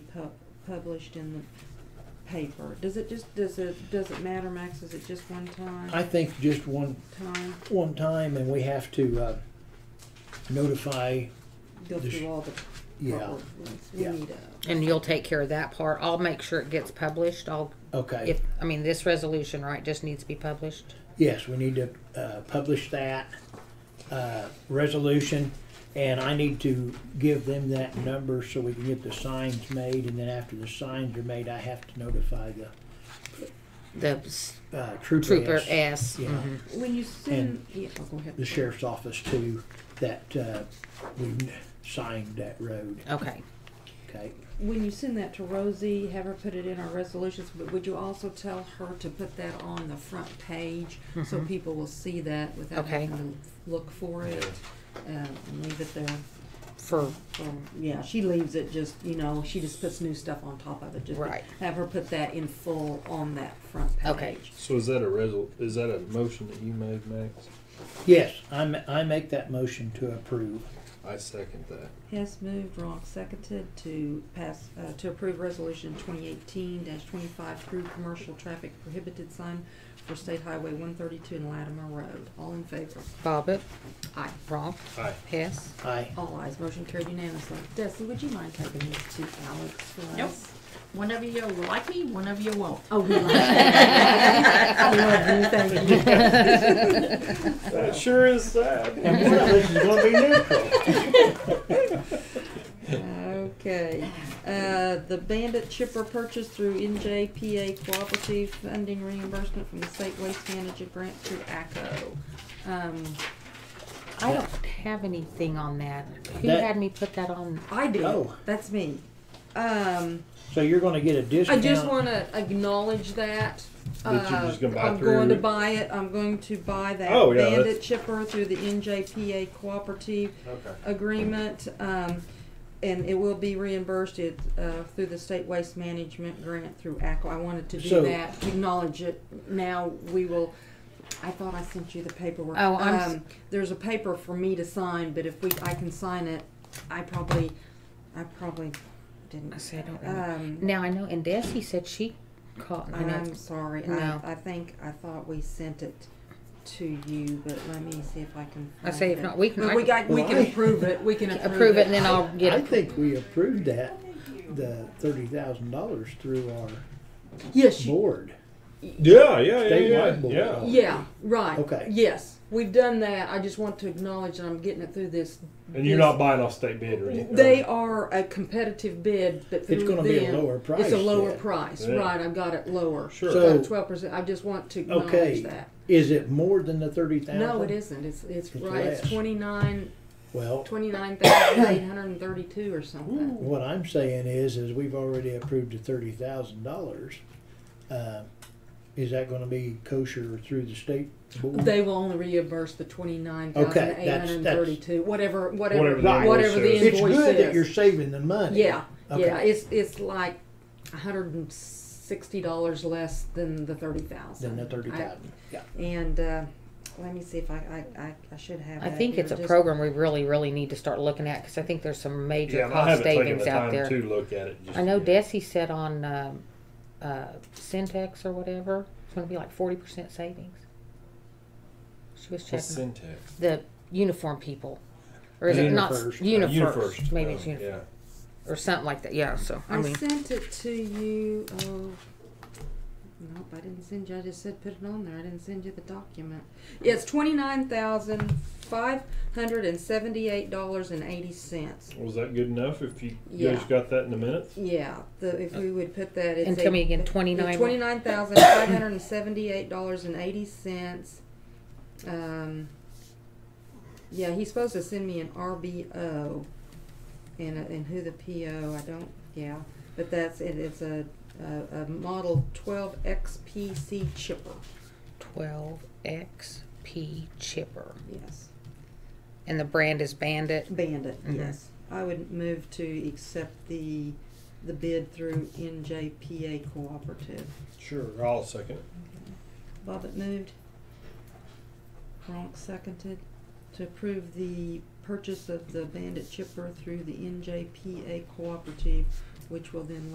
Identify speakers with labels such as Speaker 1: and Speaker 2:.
Speaker 1: pu- published in the paper? Does it just, does it, does it matter, Max? Is it just one
Speaker 2: I
Speaker 1: time?
Speaker 2: think just one,
Speaker 1: Time,
Speaker 2: one time and we have to, uh, notify,
Speaker 1: go
Speaker 2: Just-
Speaker 1: through all the
Speaker 2: yeah,
Speaker 1: proper ones. We
Speaker 2: Yeah.
Speaker 1: need a,
Speaker 3: And you'll take care of that part. I'll make sure it gets published. I'll,
Speaker 2: okay.
Speaker 3: if, I mean, this resolution, right, just needs to be published.
Speaker 2: Yes, we need to, uh, publish that, uh, resolution. And I need to give them that number so we can get the signs made. And then after the signs are made, I have to notify the,
Speaker 3: The s-
Speaker 2: uh, trooper.
Speaker 3: Trooper
Speaker 2: S,
Speaker 3: S.
Speaker 2: Yeah.
Speaker 3: mhm.
Speaker 1: when you send, yeah, oh, go ahead.
Speaker 2: The sheriff's office too, that, uh, we signed that road,
Speaker 3: Okay.
Speaker 2: okay?
Speaker 1: When you send that to Rosie, have her put it in our resolutions, but would you also tell her to put that on the front page so people will see that without
Speaker 3: Mm-hmm. Okay.
Speaker 1: having to look for it? Uh, and leave it there.
Speaker 3: For,
Speaker 1: for- yeah, she leaves it just, you know, she just puts new stuff on top of it. Just
Speaker 3: Right.
Speaker 1: have her put that in full on that front page.
Speaker 3: Okay.
Speaker 4: So is that a resol, is that a motion that you made, Max?
Speaker 2: Yes, I, ma- I make that motion to approve.
Speaker 4: I second that.
Speaker 1: Hess moved, Ronk seconded to pass, uh, to approve resolution twenty eighteen twenty-five through commercial traffic prohibited sign for State Highway one thirty-two and Latimer Road. All in favor?
Speaker 3: Bobbit,
Speaker 1: Aye.
Speaker 3: Ronk,
Speaker 4: Aye.
Speaker 3: Hess.
Speaker 2: Aye.
Speaker 1: All ayes, motion carried unanimously. Desi, would you mind taking these to Alex for us?
Speaker 5: Nope. One of you will like me, one of you won't.
Speaker 1: Oh, we love you. I love you, thank you.
Speaker 4: That sure is sad.
Speaker 2: And one of us is gonna be neutral.
Speaker 1: Okay, uh, the Bandit chipper purchase through NJPA Cooperative Funding Reimbursement from the State Waste Management Grant through ACO. Um,
Speaker 3: I don't have anything on that. Who
Speaker 2: That-
Speaker 3: had me put that on?
Speaker 1: I did,
Speaker 2: Oh.
Speaker 1: that's me. Um,
Speaker 2: So you're gonna get a
Speaker 1: I
Speaker 2: discount.
Speaker 1: just wanna acknowledge that.
Speaker 4: That you're
Speaker 1: uh,
Speaker 4: just gonna buy
Speaker 1: I'm going to
Speaker 4: through-
Speaker 1: buy it, I'm going to buy that
Speaker 4: Oh, yeah,
Speaker 1: Bandit
Speaker 4: that's-
Speaker 1: chipper through the NJPA Cooperative
Speaker 4: Okay.
Speaker 1: agreement, um, and it will be reimbursed it, uh, through the state waste management grant through ACO. I wanted to do
Speaker 2: So-
Speaker 1: that, acknowledge it. Now we will, I thought I sent you the paperwork.
Speaker 3: Oh, I'm s-
Speaker 1: Um, There's a paper for me to sign, but if we, I can sign it, I probably, I probably
Speaker 3: I
Speaker 1: didn't.
Speaker 3: said, I don't know.
Speaker 1: Um,
Speaker 3: Now, I know, and Desi said she caught, I know,
Speaker 1: I'm sorry. I,
Speaker 3: No.
Speaker 1: I think, I thought we sent it to you, but let me see if I can.
Speaker 3: I say if
Speaker 1: find it.
Speaker 3: not, we can-
Speaker 1: But
Speaker 3: I
Speaker 1: We
Speaker 3: can-
Speaker 1: got, we
Speaker 2: Well,
Speaker 1: can
Speaker 2: I-
Speaker 1: approve it. We can
Speaker 3: approve it and then I'll get
Speaker 2: I
Speaker 3: it.
Speaker 2: think we approved that, the thirty thousand dollars through our
Speaker 1: Yes, you
Speaker 2: board.
Speaker 4: Yeah, yeah, yeah, yeah,
Speaker 2: Statewide board.
Speaker 4: yeah.
Speaker 1: Yeah, right.
Speaker 2: Okay.
Speaker 1: Yes, we've done that. I just want to acknowledge that I'm getting it through this.
Speaker 4: And you're not buying off state bid or anything?
Speaker 1: They are a competitive bid, but
Speaker 2: It's
Speaker 1: through
Speaker 2: gonna be a
Speaker 1: them-
Speaker 2: lower
Speaker 1: It's
Speaker 2: price
Speaker 1: a lower
Speaker 2: then.
Speaker 1: price,
Speaker 4: Yeah.
Speaker 1: right? I've got it lower.
Speaker 4: Sure.
Speaker 2: So-
Speaker 1: twelve percent. I just want to acknowledge
Speaker 2: Okay,
Speaker 1: that.
Speaker 2: is it more than the thirty thousand?
Speaker 1: No, it isn't. It's it's,
Speaker 2: It's
Speaker 1: right. It's
Speaker 2: less.
Speaker 1: twenty nine
Speaker 2: Well,
Speaker 1: twenty nine thousand eight hundred and thirty two or something.
Speaker 2: what I'm saying is, is we've already approved the thirty thousand dollars. Uh, Is that gonna be kosher through the state board?
Speaker 1: They will only reimburse the twenty nine thousand
Speaker 2: Okay,
Speaker 1: eight hundred
Speaker 2: that's-
Speaker 1: and
Speaker 2: that's-
Speaker 1: thirty two. Whatever, whatever,
Speaker 4: Whatever
Speaker 1: whatever
Speaker 4: the
Speaker 1: the,
Speaker 4: invoice says.
Speaker 2: It's
Speaker 1: invoice
Speaker 2: good that
Speaker 1: says.
Speaker 2: you're saving the money.
Speaker 1: Yeah,
Speaker 2: Okay.
Speaker 1: yeah, it's it's like a hundred and sixty dollars less than the thirty thousand.
Speaker 2: Than the thirty thousand, yeah.
Speaker 1: And uh, let me see if I I, I, I should have.
Speaker 3: I
Speaker 1: that
Speaker 3: think
Speaker 1: here,
Speaker 3: it's a
Speaker 1: just-
Speaker 3: program we really, really need to start looking at, cause I think there's some major
Speaker 4: Yeah, and I
Speaker 3: cost
Speaker 4: haven't taken the
Speaker 3: savings out
Speaker 4: time
Speaker 3: there.
Speaker 4: to look at it. just
Speaker 3: I know
Speaker 4: yet.
Speaker 3: Desi said on, um, uh, Syntex or whatever, it's gonna be like forty percent savings. She was
Speaker 4: What's
Speaker 3: checking,
Speaker 4: Syntax?
Speaker 3: the uniform people, or is it not,
Speaker 2: Unifirst.
Speaker 3: UniFirst, maybe it's
Speaker 4: no,
Speaker 3: Unifirst,
Speaker 4: Yeah.
Speaker 3: or something like that, yeah, so, I
Speaker 1: I
Speaker 3: mean,
Speaker 1: sent it to you. Oh, nope, I didn't send you. I just said put it on there. I didn't send you the document. Yeah, it's twenty nine thousand five hundred and seventy eight dollars and eighty cents.
Speaker 4: Was that good enough if you guys
Speaker 1: Yeah.
Speaker 4: got that in a minute?
Speaker 1: Yeah, the, if we would put that, it's
Speaker 3: Uh, and
Speaker 1: a-
Speaker 3: tell me again, twenty-nine.
Speaker 1: Twenty nine thousand five hundred and seventy eight dollars and eighty cents. Um, yeah, he's supposed to send me an RBO, and a, and who the PO I don't yeah, but that's it. It's a a, a model twelve XPC chipper.
Speaker 3: 12XP chipper.
Speaker 1: Yes,
Speaker 3: And the brand is Bandit.
Speaker 1: Bandit.
Speaker 3: Mhm.
Speaker 1: Yes, I would move to accept the the bid through NJPA Cooperative.
Speaker 4: Sure, I'll second it.
Speaker 1: Bobbit moved. Ronk seconded to approve the purchase of the Bandit chipper through the NJPA Cooperative which will then